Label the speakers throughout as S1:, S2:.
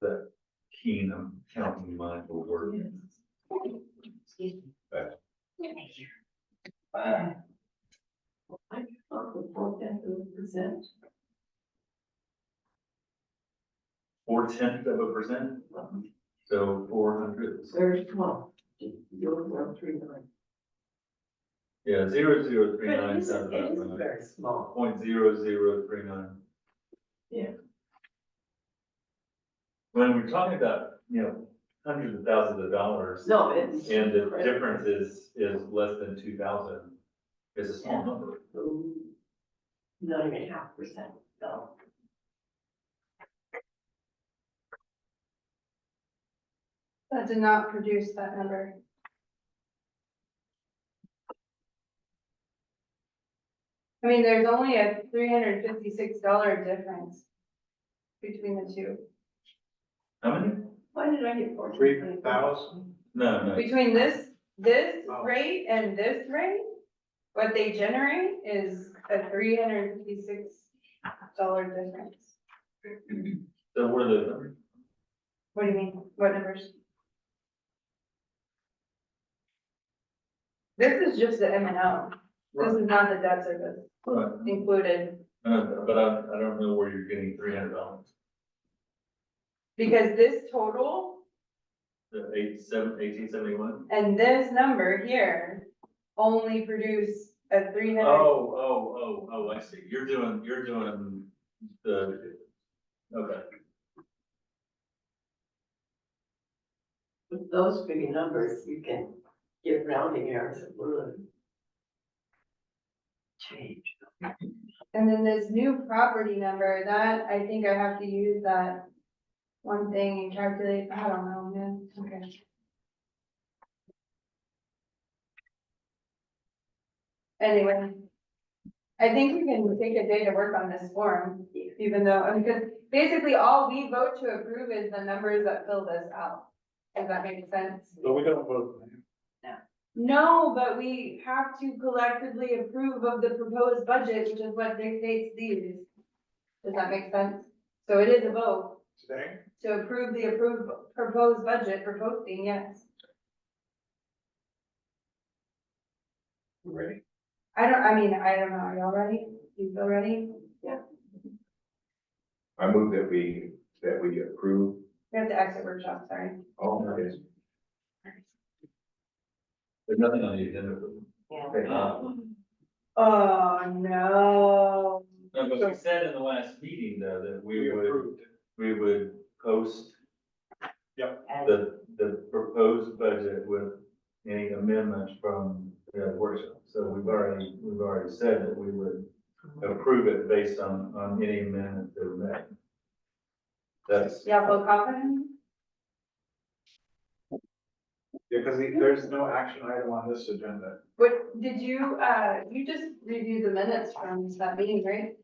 S1: that Keen, I'm counting mine for work.
S2: I thought the four ten percent,
S1: Four tenths of a percent,
S2: um,
S1: so four hundred,
S2: there's twelve, you're, you're three nine.
S1: yeah, zero, zero, three,
S2: But it
S1: nine,
S2: is,
S1: sounds
S2: it
S1: about
S2: is
S1: right.
S2: very small.
S1: Point zero, zero, three, nine.
S2: Yeah.
S1: When we're talking about, you know, hundreds of thousands of dollars,
S2: No, it's.
S1: and the difference is, is less than two thousand, it's a small number.
S2: Um, Not even half percent, so.
S3: That did not produce that number. I mean, there's only a three hundred fifty-six dollar difference between the two,
S1: How many?
S2: Why did I get four?
S4: Three thousand?
S1: No, no,
S3: between this, this
S4: Oh.
S3: rate and this rate. What they generate is a three hundred fifty-six dollar difference.
S1: so what are those numbers?
S3: What do you mean, what numbers? This is just the M and O, this is not the debt service.
S1: Right.
S3: included,
S1: Uh, But I, I don't know where you're getting three hundred dollars,
S3: because this total
S1: the eight, seven, eighteen seventy-one?
S3: and this number here only produce a three
S1: Oh,
S3: hundred.
S1: oh, oh, oh, I see, you're doing, you're doing the, okay,
S2: With those big numbers, you can get rounding errors that would. Change.
S3: And then this new property number, that, I think I have to use that one thing and calculate, I don't know, man, okay. Anyway, I think we can take a day to work on this form, even though, I mean, because basically all we vote to approve is the numbers that fill this out. Does that make sense?
S4: No, we don't vote.
S3: No, but we have to collectively approve of the proposed budget, which is what dictates these. Does that make sense? So it is a vote
S4: Today?
S3: to approve the approved proposed budget for posting, yes.
S4: Ready?
S3: I don't, I mean, I don't know, are y'all ready? You feel ready?
S5: I move that we, that we approve
S3: We have the exit workshop, sorry.
S4: Oh,
S5: all of this.
S1: there's nothing on the agenda. for them.
S2: Yeah.
S1: Uh,
S3: Oh, no.
S1: No, but we said in the last meeting though, that we
S4: We
S1: would,
S4: approved.
S1: we would post
S2: And
S1: the, the proposed budget with any amendments from the workshop. So we've already, we've already said that we would approve it based on, on any amendment that we make. That's,
S3: Y'all feel confident?
S4: Yeah, because there's no action item on this agenda.
S3: What, did you, uh, you just reviewed the minutes from that meeting, right?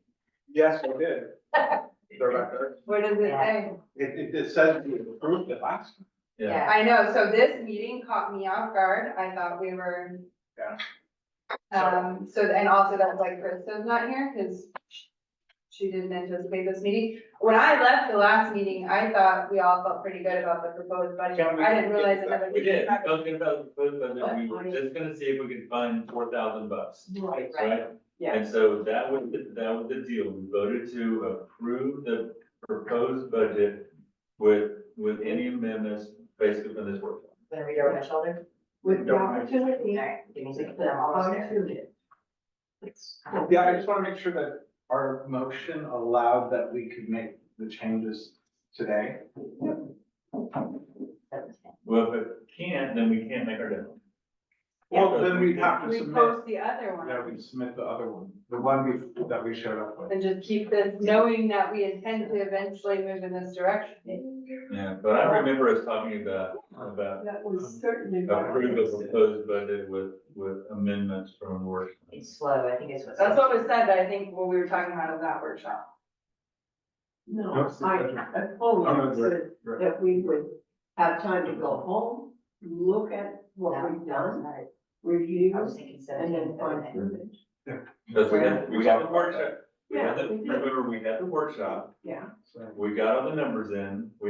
S4: Yes, we did. Director.
S3: What does it say?
S4: It, it, it says we approved it last. time.
S1: yeah,
S3: I know, so this meeting caught me off guard, I thought we were.
S4: Yeah.
S3: Um, so, and also that's why Krista's not here, because she didn't anticipate this meeting. When I left the last meeting, I thought we all felt pretty good about the proposed budget,
S4: Can we
S3: I didn't
S4: get
S3: realize
S4: that?
S3: another.
S1: we did,
S3: meeting-
S1: talking about the proposed budget, we were just gonna see if we could find four thousand bucks,
S2: Right,
S1: right?
S2: Yeah.
S1: And so that was, the- that was the deal, we voted to approve the proposed budget with, with any amendments basically from this workshop.
S6: Then we don't have shelter.
S2: with the
S4: Don't-
S2: opportunity to
S6: Give me a
S2: put
S6: second,
S2: them
S6: I'm
S2: all
S6: almost there.
S2: to it.
S4: Yeah, I just want to make sure that our motion allowed that we could make the changes today.
S1: Well, if it can't, then we can't make our deadline.
S4: Well, then we'd have to
S3: We
S4: submit,
S3: post the other
S4: yeah,
S3: one,
S4: we'd submit the other one, the one we, that we showed up with.
S3: and just keep this, knowing that we intend to eventually move in this direction.
S1: Yeah, but I remember us talking about, about
S2: That
S4: Um,
S2: was certainly. not-
S1: approve the proposed budget with, with amendments from work.
S6: It's slow, I think it's what's.
S3: That's what was said, I think, when we were talking about at that workshop.
S2: No,
S4: No, it's
S2: I,
S4: different.
S2: I fully
S4: Oh, no,
S2: said
S4: right.
S2: that we would have time to go home, look at
S6: No,
S2: what we've done,
S6: not it.
S2: review,
S6: I was thinking
S2: and
S6: seventeen,
S2: then find
S6: thirty.
S2: it.
S1: Because we had, we had the workshop, we
S2: Yeah,
S1: had the,
S2: we did.
S1: remember, we had the workshop,
S2: Yeah.
S4: So-
S1: we got all the numbers in, we